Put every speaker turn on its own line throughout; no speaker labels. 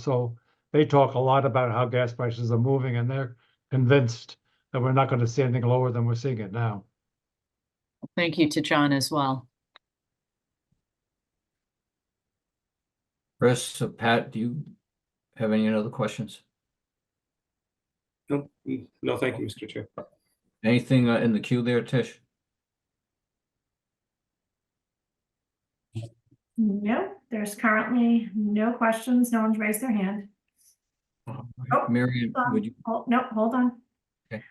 So they talk a lot about how gas prices are moving and they're convinced that we're not gonna see anything lower than we're seeing it now.
Thank you to John as well.
Chris, so Pat, do you have any other questions?
No, mm, no, thank you, Mr. Chair.
Anything uh, in the queue there, Tish?
No, there's currently no questions. No one's raised their hand. Nope.
Marion, would you,
Oh, no, hold on.
Okay.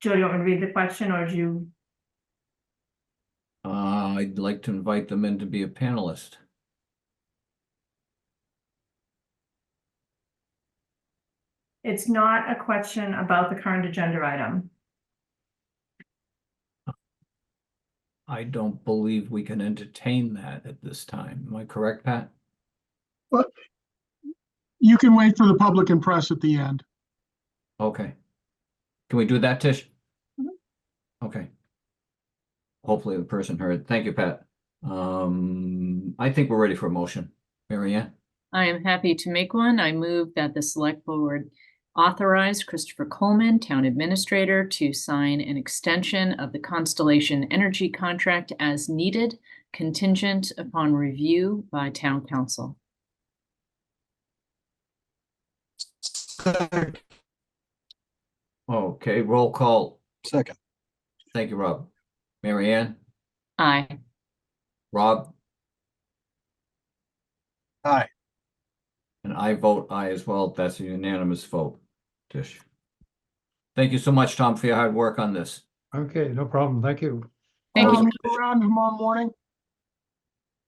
Joe, do you want me to read the question or do you?
uh, I'd like to invite them in to be a panelist.
It's not a question about the current agenda item.
I don't believe we can entertain that at this time. Am I correct, Pat?
You can wait for the public and press at the end.
Okay. Can we do that, Tish?
Mhm.
Okay. Hopefully the person heard. Thank you, Pat. Um, I think we're ready for a motion. Marianne.
I am happy to make one. I move that the select board authorize Christopher Coleman, town administrator, to sign an extension of the Constellation Energy contract as needed, contingent upon review by town council.
Second.
Okay, roll call.
Second.
Thank you, Rob. Marianne.
Aye.
Rob?
Aye.
And I vote aye as well. That's a unanimous vote, Tish. Thank you so much, Tom, for your hard work on this.
Okay, no problem. Thank you.
Thank
Tom,
you.
are you Around tomorrow morning?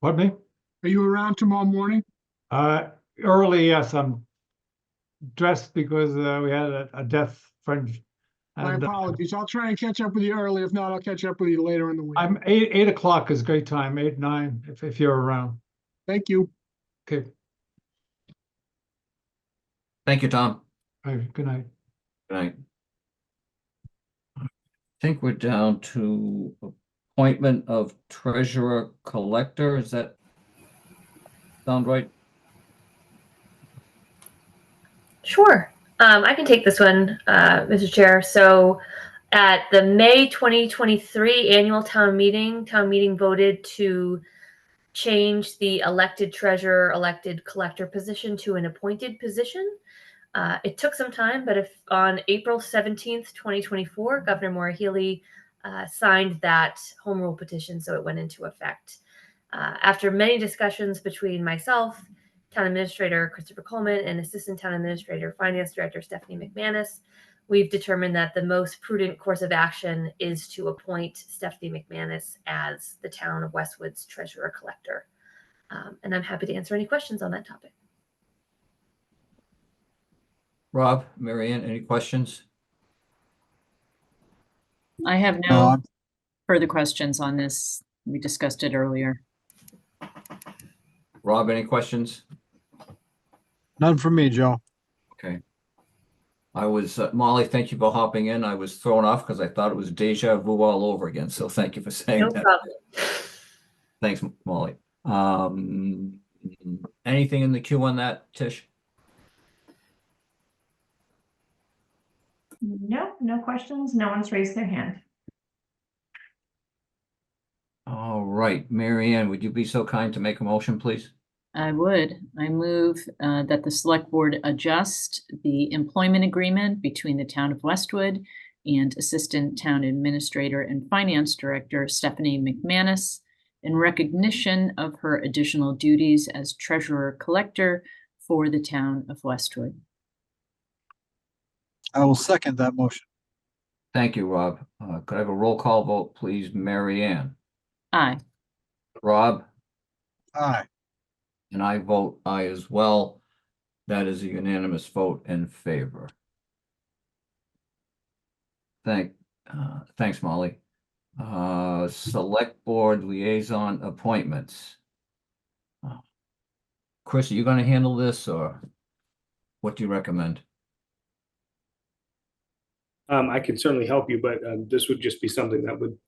Pardon me?
Are you around tomorrow morning?
Uh, early, yes, I'm dressed because uh, we had a, a death friend.
My
and, uh,
apologies. I'll try and catch up with you early. If not, I'll catch up with you later in the week.
I'm eight, eight o'clock is great time, eight, nine, if, if you're around.
Thank you.
Okay,
Thank you, Tom.
all right, good night.
Good night. I think we're down to appointment of treasurer collector. Is that sound right?
Sure. Um, I can take this one, uh, Mr. Chair. So at the May 2023 annual town meeting, town meeting voted to change the elected treasurer, elected collector position to an appointed position. Uh, it took some time, but if on April 17th, 2024, Governor Maura Healy uh, signed that home rule petition, so it went into effect. Uh, after many discussions between myself, Town Administrator Christopher Coleman and Assistant Town Administrator Finance Director Stephanie McManus, we've determined that the most prudent course of action is to appoint Stephanie McManus as the Town of Westwood's Treasurer Collector. Um, and I'm happy to answer any questions on that topic.
Rob, Marianne, any questions?
I have no
uh,
Bob,
further questions on this. We discussed it earlier.
Rob, any questions?
None from me, Joe.
Okay. I was, uh, Molly, thank you for hopping in. I was thrown off because I thought it was deja vu all over again. So thank you for saying
No
that.
problem.
Thanks, Molly. Um, anything in the queue on that, Tish?
No, no questions. No one's raised their hand.
All right, Mary Ann, would you be so kind to make a motion, please?
I would. I move uh, that the select board adjust the employment agreement between the town of Westwood and Assistant Town Administrator and Finance Director Stephanie McManus in recognition of her additional duties as treasurer collector for the town of Westwood.
I will second that motion.
Thank you, Rob. Uh, could I have a roll call vote, please? Mary Ann,
Aye.
Rob?
Aye.
And I vote aye as well. That is a unanimous vote in favor. Thank, uh, thanks, Molly. Uh, select board liaison appointments. Chris, are you gonna handle this or what do you recommend?
Um, I can certainly help you, but um, this would just be something that would